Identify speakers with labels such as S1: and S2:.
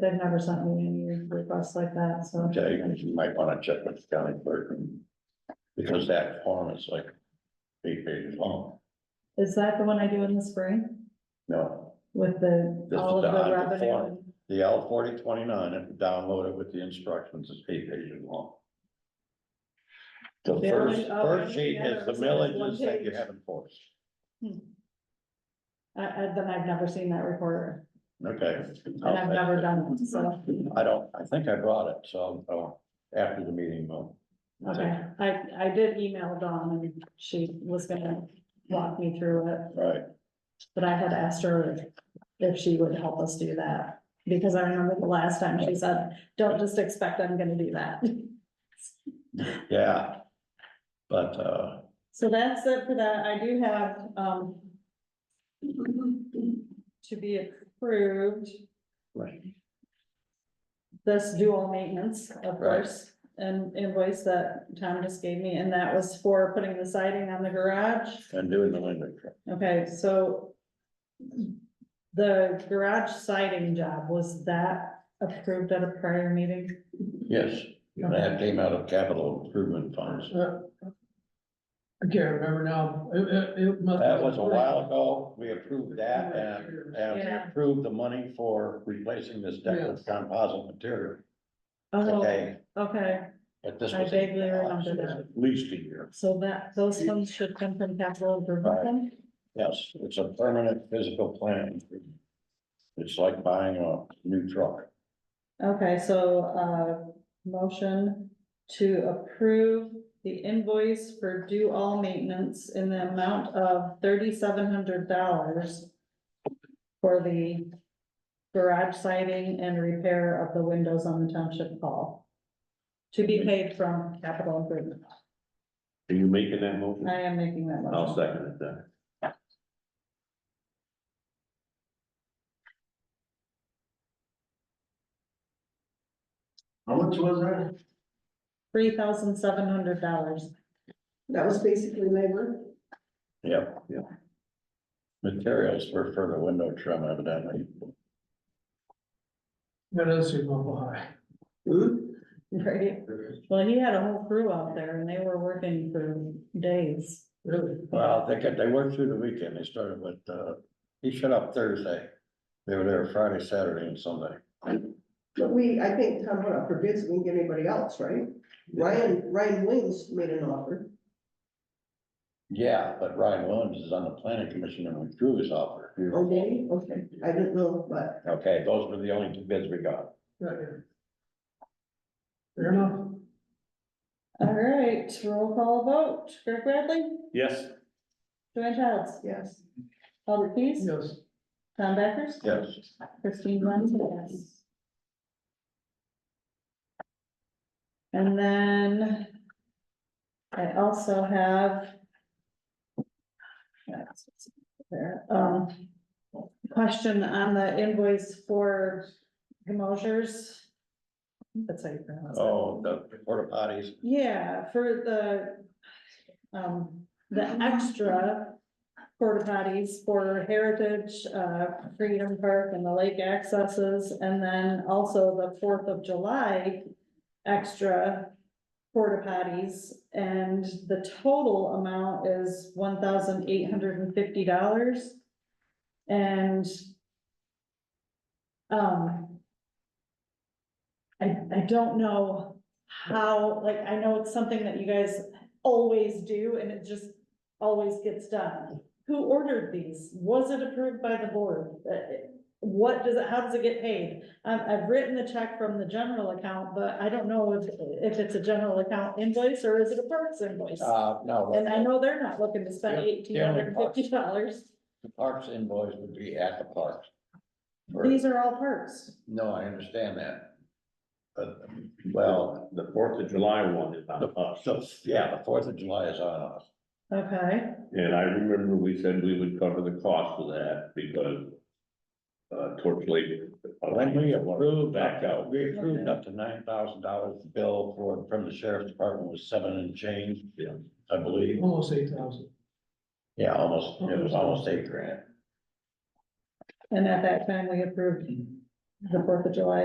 S1: they've never sent me any requests like that, so.
S2: Okay, you might wanna check with the county clerk. and- Because that form is like eight pages long.
S1: Is that the one I do in the spring
S2: No,
S1: with the,
S2: This is
S1: all of
S2: the-
S1: the
S2: the
S1: revenue?
S2: form. the L forty twenty-nine, if you download it with the instructions, it's eight pages long. The
S1: They're
S2: first,
S1: like, oh, I
S2: first
S1: don't
S2: sheet
S1: know,
S2: is the
S1: it's like one
S2: millages that you
S1: page.
S2: have enforced.
S1: Hmm. I, I, then I've never seen that recorder
S2: Okay.
S1: and I've never done it, so,
S2: I don't, I think I brought it, so, uh, after the meeting, well.
S1: okay. I, I did email Dawn and she was gonna walk me through it.
S2: Right,
S1: But I had asked her if she would help us do that, because I remember the last time she said, don't just expect I'm gonna do that.
S2: yeah. But, uh,
S1: So that's it for that, I do have, um. To be approved,
S2: right,
S1: this dual maintenance, of
S2: Right.
S1: course, and invoice that Tom just gave me, and that was for putting the siding on the garage.
S2: and doing the window. trim.
S1: Okay, so. The garage siding job, was that approved at a prior meeting?
S2: Yes, that came out of capital improvement funds.
S3: Uh, I can't remember now. It, it, it must.
S2: That was a while ago, we approved that uh, and, and we
S1: Yeah.
S2: approved the money for replacing this deck with composite material.
S1: Oh,
S2: Okay,
S1: okay,
S2: but this
S1: I
S2: was.
S1: vaguely
S2: uh,
S1: remember that.
S2: At least a year,
S1: so that, those funds should come from capital improvement then?
S2: yes, it's a permanent physical plan. It's like buying a new truck.
S1: Okay, so, uh, motion to approve the invoice for do all maintenance in the amount of thirty-seven hundred dollars for the garage siding and repair of the windows on the township hall. To be paid from capital improvement.
S2: Are you making that motion?
S1: I am making that motion.
S2: second it then.
S4: How much was that?
S1: Three thousand seven hundred dollars.
S5: That was basically labor.
S2: Yep, yeah. Materials were for the window trim evidently.
S3: That does seem awful high.
S5: Hmm?
S1: Right. Well, he had a whole crew out there and they were working for days.
S3: Really?
S2: Well, they got, they worked through the weekend, they started with, uh, he shut up Thursday. They were there Friday, Saturday and Sunday.
S5: But we, I think Tom went out for bids, we can get anybody else, right? Ryan, Ryan Wings made an offer.
S2: Yeah, but Ryan Williams is on the planning commission and withdrew his offer.
S5: Oh, did he? Okay, I didn't know, but
S2: Okay, those were the only two bids we got.
S3: Right here. Fair enough.
S1: All right, roll call vote. Greg Bradley,
S6: Yes.
S1: Joanne Childs,
S5: yes.
S1: Albert Keys,
S3: Yes.
S1: Tom Backers,
S2: Yes,
S1: Christine Glenn, yes. And then I also have that's what's there, um, question on the invoice for Gemosiers. That's how you pronounce it.
S2: oh, the porta potties,
S1: Yeah, for the, um, the extra porta potties for Heritage, uh, Freedom Park and the lake accesses, and then also the Fourth of July extra porta potties, and the total amount is one thousand eight hundred and fifty dollars. And um, I, I don't know how, like, I know it's something that you guys always do and it just always gets done. Who ordered these? Was it approved by the board? Uh, What does it, how does it get paid? I've, I've written the check from the general account, but I don't know if, if it's a general account invoice or is it a parks invoice?
S2: uh, no.
S1: And I know they're not looking to spend
S2: Yeah,
S1: eighteen
S2: the only
S1: hundred and fifty dollars.
S2: The parks invoice would be at the parks. Or-
S1: These are all parks.
S2: No, I understand that. But, well,
S6: The Fourth of July one is on us,
S2: so, yeah, the Fourth of July is on us.
S1: Okay,
S6: and I remember we said we would cover the cost of that because uh, torch lady.
S2: When we approved,
S6: Back out.
S2: we approved up to nine thousand dollars bill for, from the sheriff's department was seven and change.
S6: Yeah.
S2: I believe,
S3: Almost eight thousand.
S2: yeah, almost, it was almost eight grand.
S1: and at that time we approved the Fourth of July